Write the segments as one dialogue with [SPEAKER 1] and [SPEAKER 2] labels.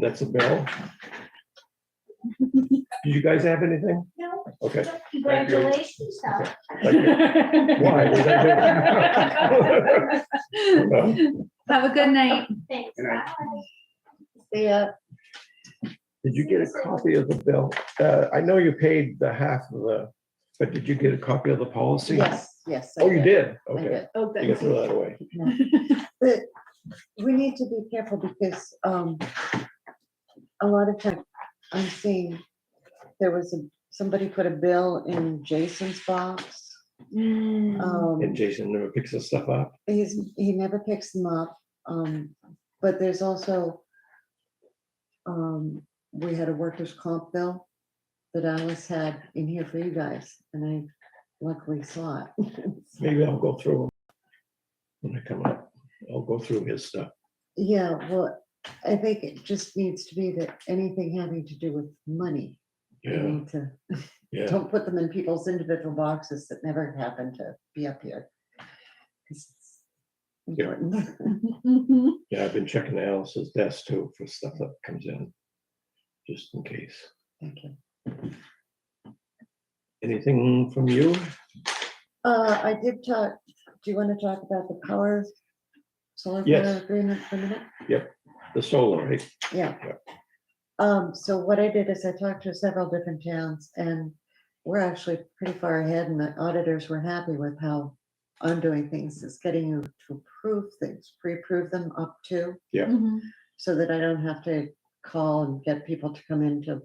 [SPEAKER 1] That's a bill. Do you guys have anything?
[SPEAKER 2] No,
[SPEAKER 1] Okay.
[SPEAKER 2] congratulations, though.
[SPEAKER 1] Why? Was that Well,
[SPEAKER 3] Have a good night.
[SPEAKER 2] Thanks.
[SPEAKER 1] Good night.
[SPEAKER 2] Bye.
[SPEAKER 3] Yeah.
[SPEAKER 1] Did you get a copy of the bill? Uh, I know you paid the half of the, but did you get a copy of the policy?
[SPEAKER 4] Yes, yes. I
[SPEAKER 1] Oh, you did?
[SPEAKER 4] I
[SPEAKER 1] Okay.
[SPEAKER 4] did.
[SPEAKER 3] Oh,
[SPEAKER 1] You can throw that away.
[SPEAKER 4] But we need to be careful because um, a lot of times I'm seeing there was a, somebody put a bill in Jason's box.
[SPEAKER 3] Mm. Oh.
[SPEAKER 4] Um,
[SPEAKER 1] And Jason never picks this stuff up.
[SPEAKER 4] He's, he never picks them up, um, but there's also, um, we had a workers' comp bill that Alice had in here for you guys, and I luckily saw it.
[SPEAKER 1] Maybe I'll go through them. When I come up, I'll go through his stuff.
[SPEAKER 4] Yeah, well, I think it just needs to be that anything having to do with money, we
[SPEAKER 1] Yeah,
[SPEAKER 4] need to,
[SPEAKER 1] yeah.
[SPEAKER 4] don't put them in people's individual boxes that never happen to be up here. 'Cause it's
[SPEAKER 1] Yeah.
[SPEAKER 4] important.
[SPEAKER 3] Mm-hmm.
[SPEAKER 1] Yeah, I've been checking Alice's desk too for stuff that comes in. Just in case.
[SPEAKER 4] Thank you.
[SPEAKER 1] Anything from you?
[SPEAKER 4] Uh, I did talk, do you want to talk about the power solar
[SPEAKER 1] Yes.
[SPEAKER 4] power agreement for a minute?
[SPEAKER 1] The solar, right?
[SPEAKER 4] Yeah. Um, so what I did is I talked to several different towns and we're actually pretty far ahead and the auditors were happy with how I'm doing things. It's getting you to approve things, pre-approve them up to, so that I don't have to call and get people to come in to,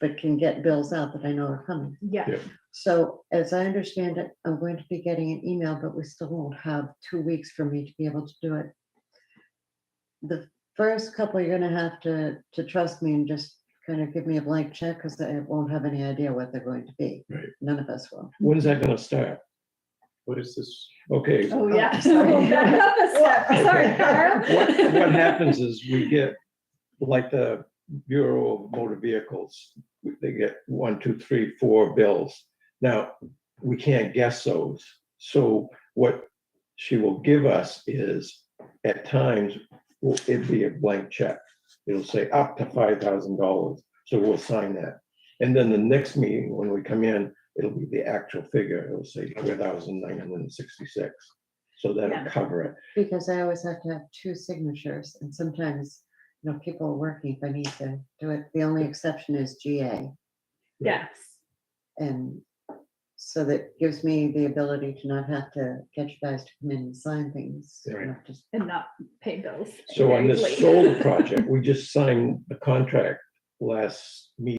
[SPEAKER 4] but can get bills out that I know are coming.
[SPEAKER 3] Yeah.
[SPEAKER 4] So as I understand it, I'm going to be getting an email, but we still won't have two weeks for me to be able to do it. The first couple, you're gonna have to, to trust me and just kind of give me a blank check because I won't have any idea what they're going to be.
[SPEAKER 1] Right.
[SPEAKER 4] None of us will.
[SPEAKER 1] When's that gonna start?
[SPEAKER 5] What is this?
[SPEAKER 1] Okay.
[SPEAKER 3] Oh, yeah.
[SPEAKER 4] sorry.
[SPEAKER 3] Back up a step. Sorry,
[SPEAKER 1] What, what
[SPEAKER 3] Carl.
[SPEAKER 1] happens is we get, like the Bureau of Motor Vehicles, they get one, two, three, four bills. Now, we can't guess those. So what she will give us is, at times, will it be a blank check? It'll say up to five thousand dollars, so we'll sign that. And then the next meeting, when we come in, it'll be the actual figure. It'll say three thousand nine hundred and sixty-six. So
[SPEAKER 3] Yeah.
[SPEAKER 1] that'll cover it.
[SPEAKER 4] Because I always have to have two signatures and sometimes, you know, people are working if I need to do it. The only exception is GA.
[SPEAKER 3] Yes.
[SPEAKER 4] And so that gives me the ability to not have to get you guys to come in and sign things. you
[SPEAKER 1] Right.
[SPEAKER 4] know, just-
[SPEAKER 3] And not pay bills.
[SPEAKER 1] So on
[SPEAKER 3] Very
[SPEAKER 1] this
[SPEAKER 3] late.
[SPEAKER 1] solar project, we just signed the contract last meeting.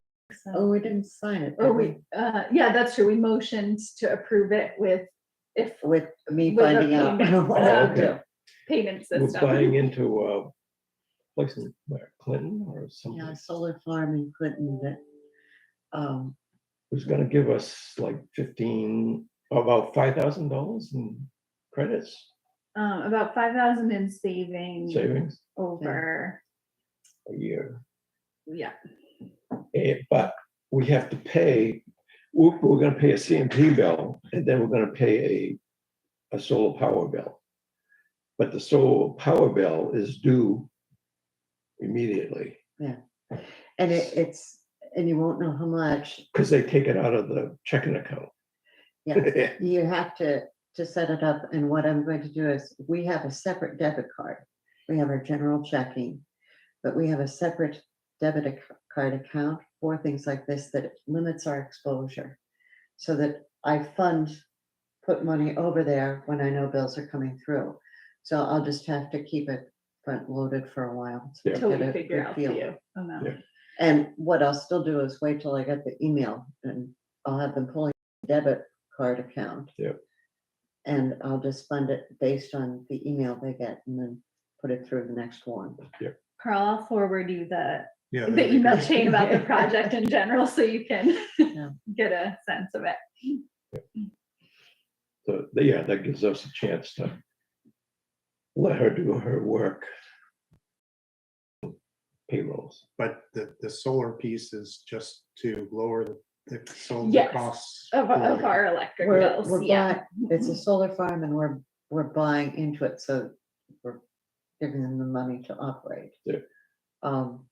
[SPEAKER 4] Oh, we didn't sign it.
[SPEAKER 3] Or
[SPEAKER 4] did
[SPEAKER 3] we, uh, yeah, that's true. We motioned to approve it with if
[SPEAKER 4] With me
[SPEAKER 3] With the
[SPEAKER 4] finding out.
[SPEAKER 3] payment
[SPEAKER 4] what I
[SPEAKER 1] system.
[SPEAKER 4] do.
[SPEAKER 3] payment
[SPEAKER 1] We're
[SPEAKER 3] system.
[SPEAKER 1] buying into uh, a place in where, Clinton or
[SPEAKER 4] Yeah,
[SPEAKER 1] something,
[SPEAKER 4] solar farm in Clinton that, um,
[SPEAKER 1] who's gonna give us like fifteen, about five thousand dollars in credits
[SPEAKER 3] Um, about five thousand in
[SPEAKER 4] Mm.
[SPEAKER 3] saving
[SPEAKER 1] savings
[SPEAKER 3] over,
[SPEAKER 1] a year.
[SPEAKER 3] yeah,
[SPEAKER 1] Eh, But we have to pay, we're, we're gonna pay a CMP bill and then we're gonna pay a, a solar power bill. But the solar power bill is due immediately.
[SPEAKER 4] and it, it's, and you won't know how much.
[SPEAKER 1] Because they take it out of the checking account.
[SPEAKER 4] Yeah, you have to, to set it up. And what I'm going to do is, we have a separate debit card. We have our general checking, but we have a separate debit ac- card account for things like this that limits our exposure. So that I fund, put money over there when I know bills are coming through. So I'll just have to keep it front loaded for a while. to
[SPEAKER 1] Yeah.
[SPEAKER 3] till
[SPEAKER 4] get
[SPEAKER 3] we
[SPEAKER 4] a
[SPEAKER 3] figure
[SPEAKER 4] good
[SPEAKER 3] out the amount.
[SPEAKER 1] Yeah.
[SPEAKER 4] and what I'll still do is wait till I get the email and I'll have them pulling debit card account.
[SPEAKER 1] Yep.
[SPEAKER 4] And I'll just fund it based on the email they get and then put it through the next one.
[SPEAKER 3] Carl, I'll forward you the,
[SPEAKER 5] Yeah.
[SPEAKER 3] the email chain about the project in general, so you can
[SPEAKER 4] Yeah.
[SPEAKER 3] get a sense of it.
[SPEAKER 1] So, yeah, that gives us a chance to let her do her work. Payrolls.
[SPEAKER 5] But the, the solar piece is just to lower the- the solar
[SPEAKER 3] Yes,
[SPEAKER 5] costs.
[SPEAKER 3] Of, of
[SPEAKER 5] for-
[SPEAKER 3] our electric
[SPEAKER 4] We're-
[SPEAKER 3] bills,
[SPEAKER 4] we're
[SPEAKER 3] yeah.
[SPEAKER 4] It's a solar farm and we're, we're buying into it, so we're giving them the money to operate.
[SPEAKER 1] Yeah.
[SPEAKER 4] Um,